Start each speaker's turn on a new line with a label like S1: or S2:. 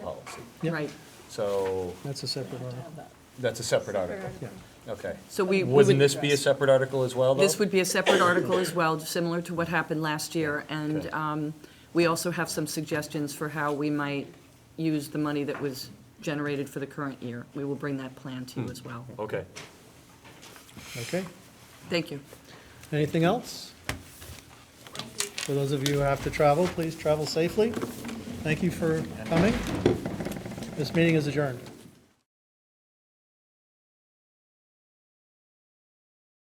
S1: Yep.
S2: Right,
S3: So
S1: That's a separate one.
S3: that's a separate article, okay.
S2: so we. we
S3: Wouldn't
S2: would-
S3: this be a separate article as well, though?
S2: This would be a separate article as well, similar to what happened last year. And
S3: Okay.
S2: um, we also have some suggestions for how we might use the money that was generated for the current year. We will bring that plan to you as well.
S3: Okay.
S1: Okay.
S2: Thank you.
S1: Anything else? For those of you who have to travel, please travel safely. Thank you for coming. This meeting is adjourned.